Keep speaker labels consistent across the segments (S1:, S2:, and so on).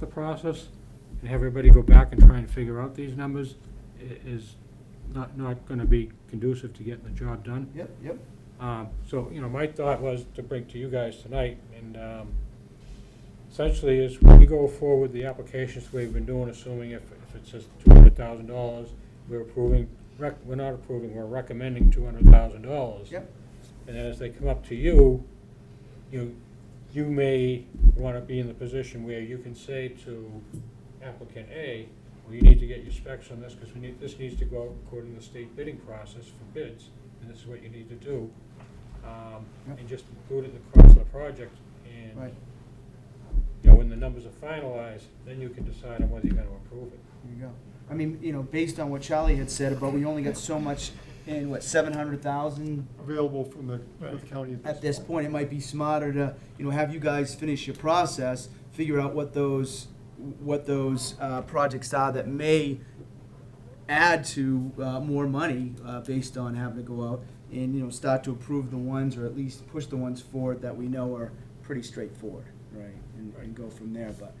S1: the process and have everybody go back and try and figure out these numbers i- is not, not gonna be conducive to getting the job done.
S2: Yep, yep.
S1: Um, So, you know, my thought was to bring to you guys tonight, and um, essentially is we go forward the applications the way we've been doing, assuming if, if it says two hundred thousand dollars, we're approving, rec, we're not approving, we're recommending two hundred thousand dollars.
S2: Yep.
S1: And then as they come up to you, you, you may wanna be in the position where you can say to applicant A, well, you need to get your specs on this, cause we need, this needs to go according to the state bidding process for bids, and this is what you need to do. Um,
S2: Yep.
S1: and just include it in the cost of the project, and
S2: Right,
S1: you know, when the numbers are finalized, then you can decide on whether you're gonna approve it.
S2: there you go. I mean, you know, based on what Charlie had said about we only got so much in, what, seven hundred thousand?
S3: available from the, from the county
S2: At this point, it might be smarter to, you know, have you guys finish your process, figure out what those, what those, uh, projects are that may add to, uh, more money, uh, based on having to go out and, you know, start to approve the ones, or at least push the ones forward that we know are pretty straightforward, right? And, and go from there, but,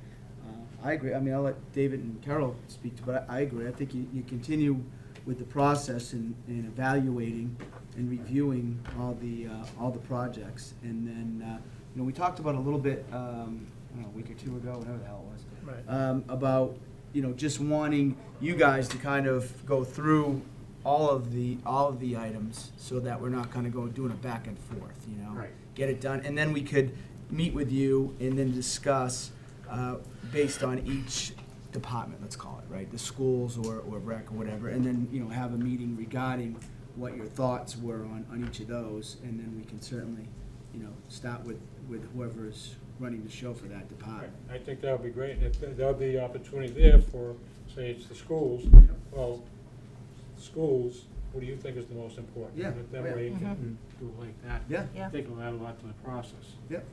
S2: Uh, I agree, I mean, I'll let David and Carol speak to, but I I agree, I think you, you continue with the process and, and evaluating and reviewing all the, uh, all the projects, and then, uh, you know, we talked about a little bit, um, I don't know, a week or two ago, whatever the hell it was.
S3: Right.
S2: Um, about, you know, just wanting you guys to kind of go through all of the, all of the items, so that we're not kind of going, doing it back and forth, you know?
S1: Right.
S2: Get it done, and then we could meet with you and then discuss, uh, based on each department, let's call it, right? The schools or, or rec or whatever, and then, you know, have a meeting regarding what your thoughts were on, on each of those, and then we can certainly, you know, start with, with whoever's running the show for that department.
S1: I think that would be great, and if, that would be opportunity there for, say, it's the schools, well, schools, what do you think is the most important?
S2: Yeah, Oh,
S1: That
S2: yeah.
S1: way you can do it like that.
S2: Yeah,
S1: I
S4: Mm-hmm. Yeah,
S1: think it'll add a lot to the process.
S2: yep,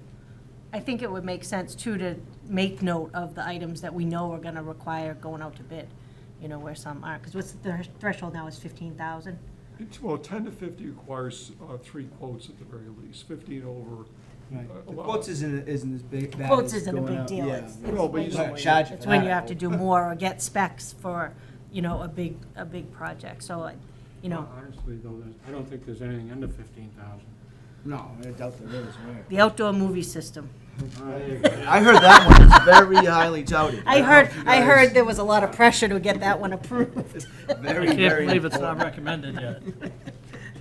S4: I think it would make sense too to make note of the items that we know are gonna require going out to bid, you know, where some aren't, because what's the thresh- threshold now is fifteen thousand?
S3: It's, well, ten to fifty requires, uh, three quotes at the very least, fifteen over.
S2: right.
S3: Uh,
S2: The
S3: well-
S2: quotes isn't, isn't as big, bad as
S4: Quotes isn't a
S2: going
S4: big
S2: out-
S4: deal,
S2: yeah.
S4: it's,
S3: Well, but you
S4: it's
S3: don't
S4: when-
S2: charge
S4: it's
S2: for
S4: when
S2: that.
S4: you have to do more or get specs for, you know, a big, a big project, so, I- you know,
S1: Honestly, though, there's, I don't think there's anything under fifteen thousand.
S2: No, I doubt there is, right?
S4: the outdoor movie system.
S2: I heard that one was very highly touted.
S4: I
S2: don't know
S4: heard,
S2: if you
S4: I
S2: guys-
S4: heard there was a lot of pressure to get that one approved.
S2: Very,
S5: I can't
S2: very
S5: believe it's not
S2: important.
S5: recommended yet.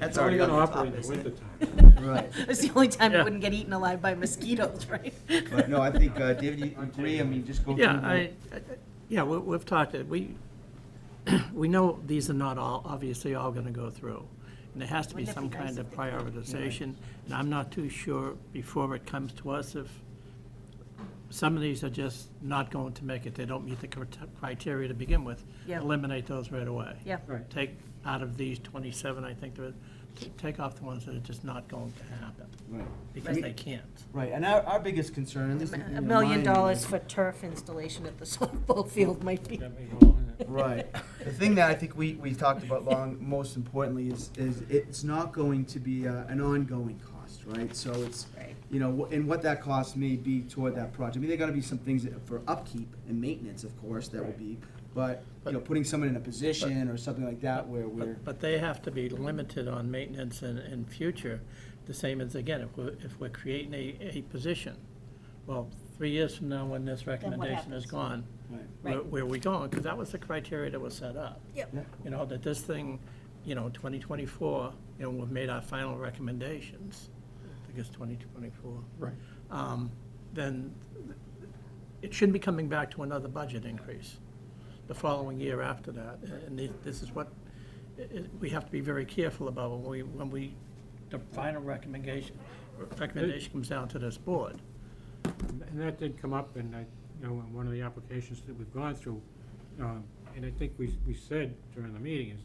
S2: That's
S1: We're
S2: already on
S1: gonna
S2: the
S1: operate
S2: top,
S1: in the
S2: isn't it?
S1: wintertime.
S2: Right.
S4: It's the only time
S5: Yeah.
S4: it wouldn't get eaten alive by mosquitoes, right?
S2: But no, I think, uh, David, you agree? I mean, just go through.
S5: Yeah,
S2: the-
S5: I, I- yeah, we- we've talked, it. we, we know these are not all, obviously all going to go through. And there has to be
S4: Wouldn't it
S5: some
S4: be nice
S5: kind of
S4: if they did?
S5: prioritization. And I'm not too sure before it comes to us if some of these are just not going to make it. They don't meet the crit- criteria to begin with.
S4: Yeah.
S5: Eliminate those right away.
S4: Yeah,
S1: Right.
S5: Take out of these 27, I think, there is- t- take off the ones that are just not going to happen
S2: Right.
S5: because they can't.
S2: Right, and our, our biggest concern, at least. you know,
S4: A million
S2: mine-
S4: dollars for turf installation at the softball field might be.
S1: That may go along with it.
S2: Right. The thing that I think we, we talked about long, most importantly, is, is it's not going to be uh, an ongoing cost, right? So it's,
S4: Right.
S2: you know, wh- and what that cost may be toward that project. I mean, there gotta be some things that- for upkeep and maintenance, of course, that will be, but, you know, putting someone in a position or something like that where we're.
S5: But, but they have to be limited on maintenance and, and future, the same as, again, if we're, if we're creating a, a position. Well, three years from now, when this recommendation is
S4: happens?
S5: gone,
S2: Right.
S5: where,
S4: Right.
S5: where are we going? Because that was the criteria that was set up.
S4: Yep.
S2: Yeah.
S5: You know, that this thing, you know, twenty twenty-four, you know, we've made our final recommendations, I think it's twenty twenty-four
S3: Right.
S5: um, then it shouldn't be coming back to another budget increase the following year after that. And thi- this is what, i- i- we have to be very careful about when we, when we, the final recommendation, recommendation comes down to this board.
S1: And that did come up, and I, you know, in one of the applications that we've gone through, um, and I think we, we said during the meeting is,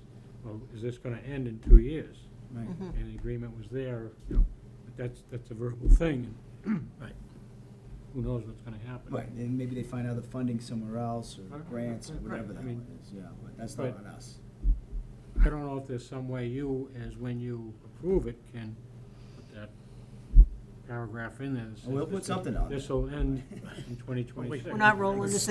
S1: well, is this gonna end in two years?
S2: Right.
S4: Mm.
S1: And the agreement was there, you know, but that's, that's a verbal thing, and
S5: Right.
S1: who knows what's gonna happen.
S2: Right, and maybe they find other funding somewhere else or
S1: Right,
S2: grants or
S1: right,
S2: whatever
S1: right, I
S2: that
S1: mean-
S2: one is, yeah, but that's not
S1: Right.
S2: on us.
S1: I don't know if there's some way you, as when you approve it, can put that paragraph in there. that says
S2: We'll
S1: this
S2: put
S1: is-
S2: something on it.
S1: This'll end in twenty
S5: We're
S1: twenty-six.
S4: We're not rolling the